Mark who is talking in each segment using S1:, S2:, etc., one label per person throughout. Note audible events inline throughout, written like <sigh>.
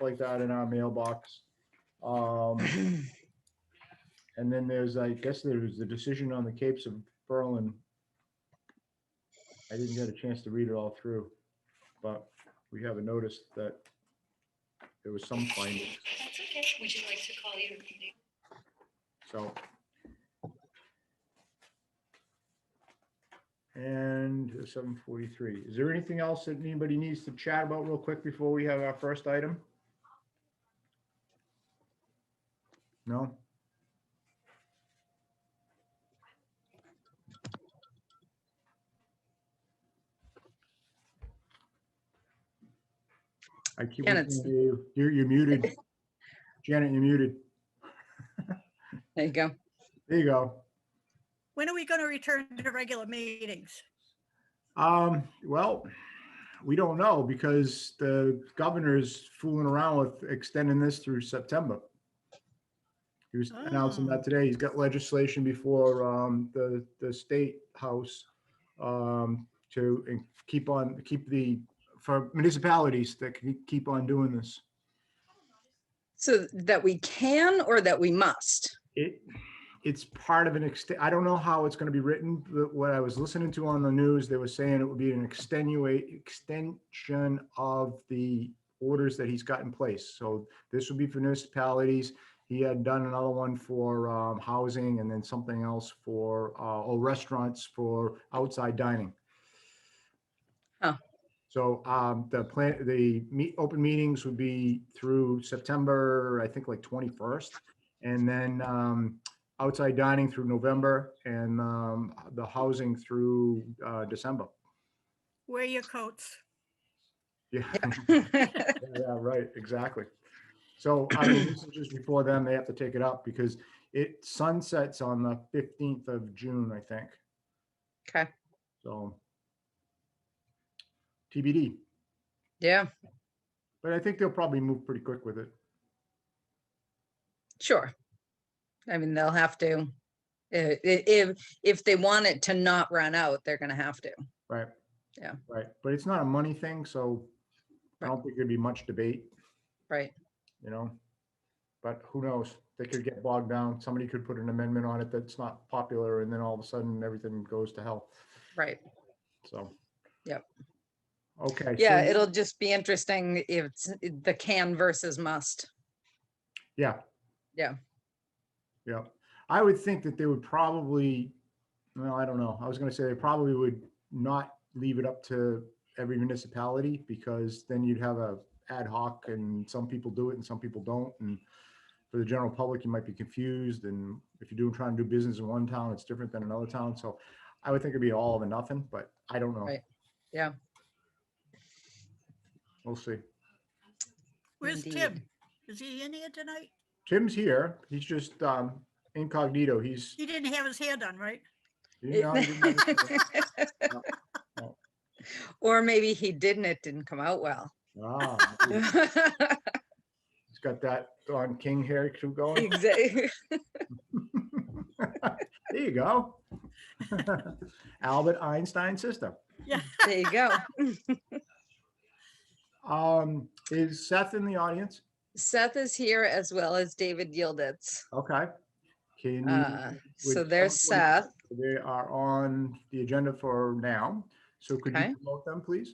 S1: like that in our mailbox. Um, and then there's, I guess there was the decision on the Capes of Berlin. I didn't get a chance to read it all through, but we haven't noticed that there was some finding,
S2: That's okay. Would you like to call your meeting?
S1: so. And seven forty-three. Is there anything else that anybody needs to chat about real quick before we have our first item? No? I keep,
S3: Ken,
S1: looking
S3: it's-
S1: at you. you're, you're muted. Janet, you're muted.
S3: There you go.
S1: There you go.
S4: When are we going to return to regular meetings?
S1: Um, well, we don't know because the governor's fooling around with extending this through September. He was announcing
S4: Oh.
S1: that today. He's got legislation before, um, the, the state house, um, to en- keep on, keep the, for municipalities that can keep on doing this.
S3: So that we can or that we must? <laughs>
S1: It, it's part of an ext, I don't know how it's gonna be written, but what I was listening to on the news, they were saying it would be an extenuate, extension of the orders that he's got in place. So this would be for municipalities. He had done another one for um, housing and then something else for, uh, oh, restaurants for outside dining.
S3: Huh.
S1: So um, the plan, the meet, open meetings would be through September, I think like 21st. And then um, outside dining through November and um, the housing through uh, December.
S4: Wear your coats.
S1: Yeah, <laughs> yeah, right, exactly. So I mean, this is just before them, they have to take it up because it sunsets on the 15th of June, I think.
S3: Okay.
S1: So TBD,
S3: Yeah,
S1: but I think they'll probably move pretty quick with it.
S3: sure. I mean, they'll have to. i- i- If, if they want it to not run out, they're gonna have to.
S1: Right.
S3: Yeah.
S1: Right. But it's not a money thing, so I don't think there'd be much debate,
S3: Right,
S1: you know? But who knows? They could get bogged down. Somebody could put an amendment on it that's not popular and then all of a sudden everything goes to hell.
S3: right.
S1: So.
S3: Yep.
S1: Okay.
S3: Yeah,
S1: so-
S3: it'll just be interesting if it's the can versus must.
S1: Yeah.
S3: Yeah.
S1: Yeah. I would think that they would probably, well, I don't know. I was gonna say they probably would not leave it up to every municipality because then you'd have a ad hoc and some people do it and some people don't. And for the general public, you might be confused. And if you're doing, trying to do business in one town, it's different than another town. So I would think it'd be all of a nothing, but I don't know.
S3: Right. Yeah.
S1: We'll see.
S4: Where's
S3: Indeed.
S4: Tim? Is he in here tonight?
S1: Tim's here. He's just um incognito. He's
S4: He didn't have his hair done, right?
S1: You
S3: It-
S1: know, you know,
S3: <laughs>
S1: no.
S3: Or maybe he didn't, it didn't come out well. <laughs>
S1: ah, maybe He's got that Don King hair too going.
S3: Exactly.
S1: <laughs> There you go. <laughs> Albert Einstein's sister.
S3: <laughs> There you go.
S1: Um, is Seth in the audience?
S3: Seth is here as well as David Yielditz.
S1: Okay. Can,
S3: Uh,
S1: would
S3: So there's
S1: someone-
S3: Seth.
S1: they are on the agenda for now. So could
S3: Okay.
S1: you promote them, please?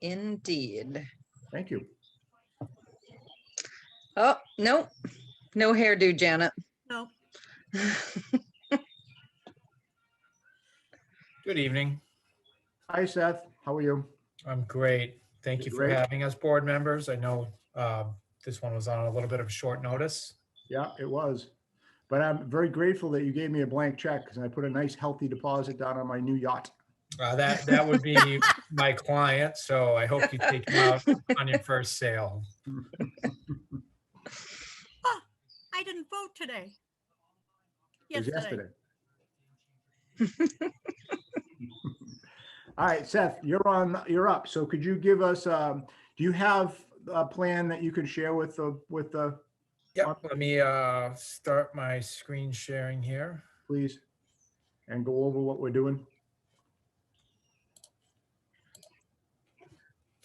S3: Indeed.
S1: Thank you.
S3: Oh, no, no hairdo, Janet. <laughs>
S4: No.
S5: Good evening.
S1: Hi, Seth. How are you?
S5: I'm great. Thank you for
S1: Great.
S5: having us, board members. I know um, this one was on a little bit of a short notice.
S1: Yeah, it was. But I'm very grateful that you gave me a blank check because I put a nice healthy deposit down on my new yacht.
S5: Uh, That, that would be my client, so I hope you take him out on your first sale.
S4: I didn't vote today.
S1: It was
S4: Yesterday.
S1: yesterday. All right, Seth, you're on, you're up. So could you give us, um, do you have a plan that you can share with the, with the,
S5: Yep, let me uh, start my screen sharing here.
S1: please? And go over what we're doing?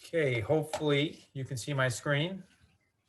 S5: Okay, hopefully you can see my screen.